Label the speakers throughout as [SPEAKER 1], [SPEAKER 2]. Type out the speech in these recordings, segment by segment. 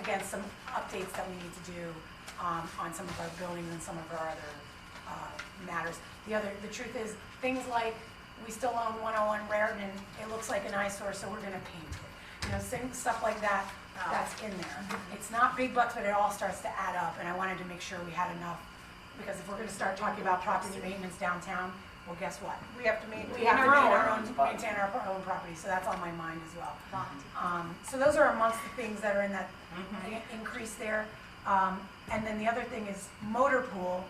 [SPEAKER 1] again, some updates that we need to do um, on some of our buildings and some of our other uh, matters. The other, the truth is, things like, we still own 101 Raritan, it looks like an eyesore, so we're gonna paint it. You know, same stuff like that, that's in there. It's not big bucks, but it all starts to add up, and I wanted to make sure we had enough, because if we're gonna start talking about property maintenance downtown, well, guess what?
[SPEAKER 2] We have to maintain
[SPEAKER 1] We have to
[SPEAKER 2] our
[SPEAKER 1] maintain
[SPEAKER 2] own.
[SPEAKER 1] our own, maintain our own property, so that's on my mind as well. Um, so those are amongst the things that are in that
[SPEAKER 3] Mm-hmm.
[SPEAKER 1] i- increase there. Um, and then the other thing is motor pool.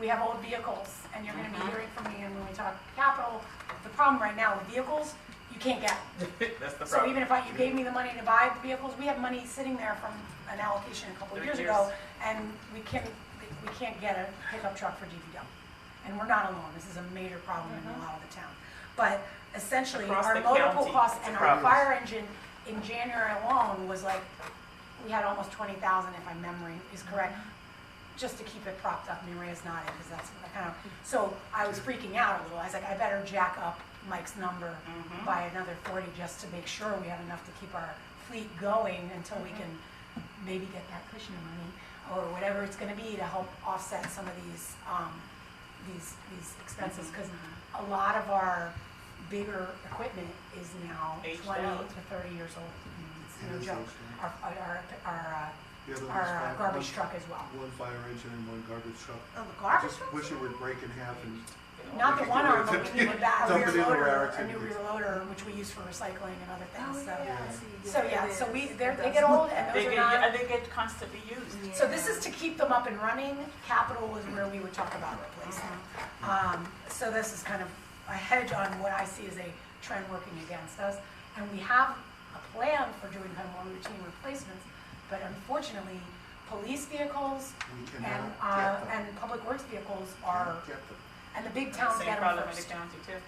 [SPEAKER 1] We have old vehicles, and you're gonna
[SPEAKER 3] Mm-hmm.
[SPEAKER 1] be hearing from me, and when we talk capital, the problem right now with vehicles, you can't get.
[SPEAKER 3] That's the
[SPEAKER 1] So
[SPEAKER 3] problem.
[SPEAKER 1] even if I, you gave me the money to buy the vehicles, we have money sitting there from an allocation a couple of
[SPEAKER 3] Three
[SPEAKER 1] years
[SPEAKER 3] years.
[SPEAKER 1] ago, and we can't, we can't get a pickup truck for DPW. And we're not alone, this is a major problem in a lot of the town. But essentially,
[SPEAKER 3] Across
[SPEAKER 1] our
[SPEAKER 3] the
[SPEAKER 1] motor pool
[SPEAKER 3] county,
[SPEAKER 1] costs
[SPEAKER 3] it's a
[SPEAKER 1] and our
[SPEAKER 3] problem.
[SPEAKER 1] fire engine in January alone was like, we had almost twenty thousand, if my memory is correct, just to keep it propped up, Maria's nodding, because that's what I kind of, so I was freaking out a little, I was like, I better jack up Mike's number
[SPEAKER 3] Mm-hmm.
[SPEAKER 1] by another forty, just to make sure we have enough to keep our fleet going until we
[SPEAKER 3] Mm-hmm.
[SPEAKER 1] can maybe get that cushion of money, or whatever it's gonna be to help offset some of these, um, these, these expenses,
[SPEAKER 3] Mm-hmm.
[SPEAKER 1] because a lot of our bigger equipment is now
[SPEAKER 3] Aged
[SPEAKER 1] twenty
[SPEAKER 3] out. Mm-hmm.
[SPEAKER 1] to thirty years old, I mean, it's
[SPEAKER 4] It
[SPEAKER 1] no
[SPEAKER 4] is
[SPEAKER 1] joke.
[SPEAKER 4] aged
[SPEAKER 1] Our, our, our,
[SPEAKER 4] The other
[SPEAKER 1] uh,
[SPEAKER 4] one's
[SPEAKER 1] our uh,
[SPEAKER 4] five-
[SPEAKER 1] garbage
[SPEAKER 4] one-
[SPEAKER 1] truck as well.
[SPEAKER 4] One fire engine and one garbage truck.
[SPEAKER 1] Oh, the
[SPEAKER 4] I
[SPEAKER 1] garbage
[SPEAKER 4] just
[SPEAKER 1] truck?
[SPEAKER 4] wish it would break in half and,
[SPEAKER 1] Not the one arm, but we need a back, a
[SPEAKER 4] Dump
[SPEAKER 1] rear
[SPEAKER 4] it in the rear
[SPEAKER 1] loader, a new
[SPEAKER 4] activities.
[SPEAKER 1] rear loader, which we use for recycling and other
[SPEAKER 2] Oh,
[SPEAKER 1] things, so.
[SPEAKER 4] yeah.
[SPEAKER 1] So, yeah, so we, they're, they get old and those
[SPEAKER 3] They get,
[SPEAKER 1] are
[SPEAKER 3] yeah,
[SPEAKER 1] not,
[SPEAKER 3] they get constantly used.
[SPEAKER 1] so this is to keep them up and running, capital was where we would talk about
[SPEAKER 3] Mm-hmm.
[SPEAKER 1] replacement. Um, so this is kind of a hedge on what I see as a trend working against us. And we have a plan for doing kind of more routine replacements, but unfortunately, police vehicles
[SPEAKER 4] we
[SPEAKER 1] and,
[SPEAKER 4] cannot
[SPEAKER 1] uh,
[SPEAKER 4] get them.
[SPEAKER 1] and public works vehicles are,
[SPEAKER 4] Cannot Get them.
[SPEAKER 1] and the big towns
[SPEAKER 3] Same
[SPEAKER 1] get
[SPEAKER 3] problem
[SPEAKER 1] them
[SPEAKER 3] in the
[SPEAKER 1] first.
[SPEAKER 3] county too.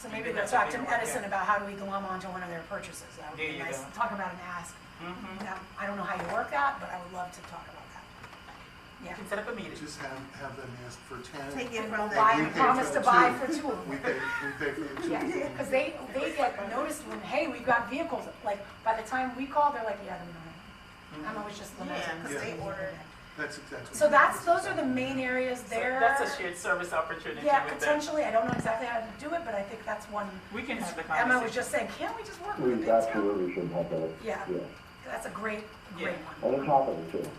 [SPEAKER 1] So maybe
[SPEAKER 3] Maybe
[SPEAKER 1] we'll
[SPEAKER 3] that's
[SPEAKER 1] talk to
[SPEAKER 3] what they want,
[SPEAKER 1] Edison
[SPEAKER 3] yeah.
[SPEAKER 1] about how do we glom onto one of their purchases. That would
[SPEAKER 3] There
[SPEAKER 1] be
[SPEAKER 3] you
[SPEAKER 1] nice.
[SPEAKER 3] go.
[SPEAKER 1] Talk about an ask.
[SPEAKER 3] Mhm.
[SPEAKER 1] That- I don't know how you work that, but I would love to talk about that.
[SPEAKER 3] You
[SPEAKER 1] Yeah.
[SPEAKER 3] can set up a meeting.
[SPEAKER 4] Just have, have them ask for ten.
[SPEAKER 2] Take it
[SPEAKER 1] And we'll
[SPEAKER 2] from the.
[SPEAKER 1] buy,
[SPEAKER 4] we
[SPEAKER 1] we
[SPEAKER 4] pay for
[SPEAKER 1] promise to
[SPEAKER 4] the
[SPEAKER 1] buy
[SPEAKER 4] two.
[SPEAKER 1] for two of
[SPEAKER 4] We
[SPEAKER 1] them.
[SPEAKER 4] pay, we pay for the two.
[SPEAKER 1] Because they, they get noticed when, hey, we've got vehicles, like, by the time we call, they're like, yeah, we
[SPEAKER 3] Mm-hmm.
[SPEAKER 1] don't have. it." I'm always just lamenting.
[SPEAKER 2] Yeah, 'cause
[SPEAKER 4] Yeah.
[SPEAKER 2] they order.
[SPEAKER 4] That's exactly.
[SPEAKER 1] So that's, those are the main areas
[SPEAKER 3] So
[SPEAKER 1] there.
[SPEAKER 3] That's a shared service opportunity
[SPEAKER 1] Yeah,
[SPEAKER 3] with them.
[SPEAKER 1] potentially. I don't know exactly how to do it, but I think that's one.
[SPEAKER 3] We can have the
[SPEAKER 1] Emma was
[SPEAKER 3] conversation.
[SPEAKER 1] just saying, can't we just work with the
[SPEAKER 5] We
[SPEAKER 1] big town?
[SPEAKER 5] absolutely should have that.
[SPEAKER 1] Yeah.
[SPEAKER 5] Yeah.
[SPEAKER 1] That's a great, great
[SPEAKER 3] Yeah.
[SPEAKER 1] one.
[SPEAKER 5] And it's happening too.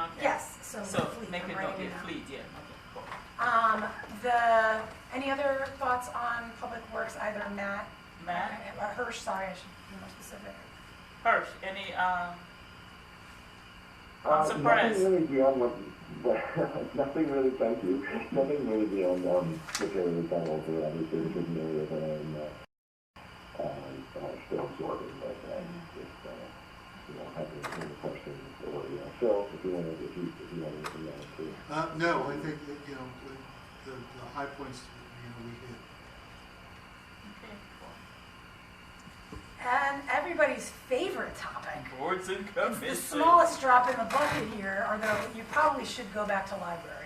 [SPEAKER 3] Okay.
[SPEAKER 1] Yes, so
[SPEAKER 3] So
[SPEAKER 1] fleet,
[SPEAKER 3] make
[SPEAKER 1] I'm
[SPEAKER 3] it
[SPEAKER 1] writing
[SPEAKER 3] okay,
[SPEAKER 1] it down.
[SPEAKER 3] fleet, yeah, okay, cool.
[SPEAKER 1] Um, the, any other thoughts on public works, either Matt?
[SPEAKER 3] Matt,
[SPEAKER 1] Or Hirsch, sorry, I should be more specific.
[SPEAKER 3] Hirsch, any, um, I'm
[SPEAKER 5] Uh,
[SPEAKER 3] surprised.
[SPEAKER 5] Nothing really beyond what, what- nothing really, thank you, nothing really beyond, um, the period of time over, obviously, it's an area that I'm, uh, uh, uh, still absorbing, but, uh, just, uh, you know, having any questions or, you know, Phil, if you want to, if you, if you want to, you know, too.
[SPEAKER 4] Uh, no, I think, that, you know, the, the the high points, you know, we hit.
[SPEAKER 3] okay, cool.
[SPEAKER 1] And everybody's favorite topic,
[SPEAKER 3] Boards and
[SPEAKER 1] the
[SPEAKER 3] commissions.
[SPEAKER 1] smallest drop in the bucket here, although you probably should go back to library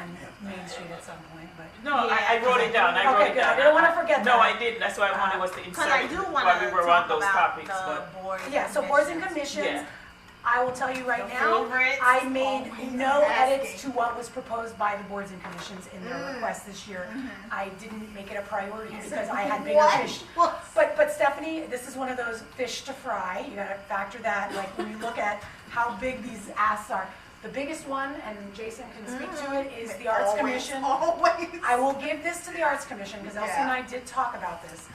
[SPEAKER 1] and Main Street at some point, but.
[SPEAKER 3] No, I, I wrote it down, I
[SPEAKER 1] Okay,
[SPEAKER 3] wrote it
[SPEAKER 1] good.
[SPEAKER 3] down. Uh,
[SPEAKER 1] I didn't wanna forget
[SPEAKER 3] No,
[SPEAKER 1] that.
[SPEAKER 3] I didn't, that's why Uh, I wanted was to
[SPEAKER 2] Cause
[SPEAKER 3] insert
[SPEAKER 2] I
[SPEAKER 3] it
[SPEAKER 2] do
[SPEAKER 3] while we
[SPEAKER 2] wanna
[SPEAKER 3] were on
[SPEAKER 2] talk
[SPEAKER 3] those
[SPEAKER 2] about
[SPEAKER 3] topics,
[SPEAKER 2] the
[SPEAKER 3] but.
[SPEAKER 2] boards and
[SPEAKER 1] Yeah, so boards and
[SPEAKER 2] commissions.
[SPEAKER 1] commissions,
[SPEAKER 3] Yeah.
[SPEAKER 1] I will tell you right
[SPEAKER 2] The
[SPEAKER 1] now,
[SPEAKER 2] favorites
[SPEAKER 1] I made
[SPEAKER 2] always
[SPEAKER 1] no edits to
[SPEAKER 2] asking.
[SPEAKER 1] what was proposed by the boards and commissions in their
[SPEAKER 2] Mm.
[SPEAKER 1] request this year. I didn't make it a priority because I had bigger
[SPEAKER 2] What?
[SPEAKER 1] fish.
[SPEAKER 2] Well,
[SPEAKER 1] But, but Stephanie, this is one of those fish to fry, you gotta factor that, like, when you look at how big these asks are. The biggest one, and Jason can speak to it, is the Arts
[SPEAKER 2] Mm. always,
[SPEAKER 1] Commission.
[SPEAKER 2] Always.
[SPEAKER 1] I will give this to the Arts Commission, because Elsie and
[SPEAKER 2] Yeah.
[SPEAKER 1] I did talk about this.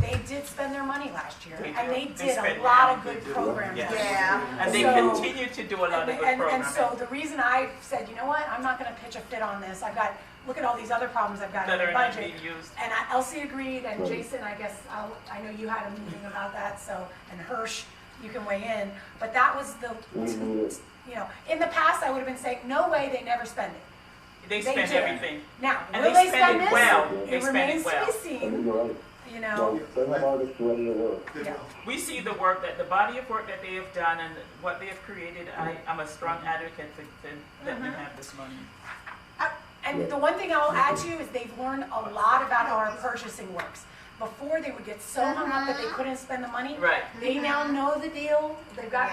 [SPEAKER 1] They did spend their money last year,
[SPEAKER 3] They
[SPEAKER 1] and
[SPEAKER 3] do.
[SPEAKER 1] they
[SPEAKER 3] They
[SPEAKER 1] did a
[SPEAKER 3] spend
[SPEAKER 1] lot
[SPEAKER 3] now.
[SPEAKER 1] of good
[SPEAKER 4] They do.
[SPEAKER 1] programs.
[SPEAKER 3] Yeah.
[SPEAKER 2] Yeah.
[SPEAKER 3] And they
[SPEAKER 1] So-
[SPEAKER 3] continue to do a lot of
[SPEAKER 1] And,
[SPEAKER 3] good
[SPEAKER 1] and, and
[SPEAKER 3] programming.
[SPEAKER 1] so the reason I said, you know what, I'm not gonna pitch a fit on this, I've got, look at all these other problems I've got in
[SPEAKER 3] That
[SPEAKER 1] the
[SPEAKER 3] are not
[SPEAKER 1] budget.
[SPEAKER 3] being used.
[SPEAKER 1] And I- Elsie agreed, and
[SPEAKER 5] Right.
[SPEAKER 1] Jason, I guess, I'll- I know you had a meeting about that, so, and Hirsch, you can weigh in, but that was the,
[SPEAKER 5] We need it.
[SPEAKER 1] you know, in the past, I would have been saying, no way, they never spend it.
[SPEAKER 3] They spend
[SPEAKER 1] do.
[SPEAKER 3] everything.
[SPEAKER 1] Now,
[SPEAKER 3] And
[SPEAKER 1] will
[SPEAKER 3] they
[SPEAKER 1] they
[SPEAKER 3] spend
[SPEAKER 1] spend
[SPEAKER 3] it
[SPEAKER 1] this?
[SPEAKER 3] well. They
[SPEAKER 1] It
[SPEAKER 3] spend
[SPEAKER 1] remains
[SPEAKER 3] it
[SPEAKER 1] to be
[SPEAKER 3] well.
[SPEAKER 5] I
[SPEAKER 1] seen,
[SPEAKER 5] think you're right.
[SPEAKER 1] you know,
[SPEAKER 5] So, they have artists ready to work.
[SPEAKER 4] They
[SPEAKER 1] Yeah.
[SPEAKER 4] will.
[SPEAKER 3] We see the work that, the body of work that they have done and what they have created. I, I'm a strong advocate for them, let them have this money.
[SPEAKER 1] and the one thing I'll add to you is they've learned a lot about how our purchasing works. Before, they would get so hung up that they couldn't spend the money.
[SPEAKER 3] Right.
[SPEAKER 1] They now know the deal, they've got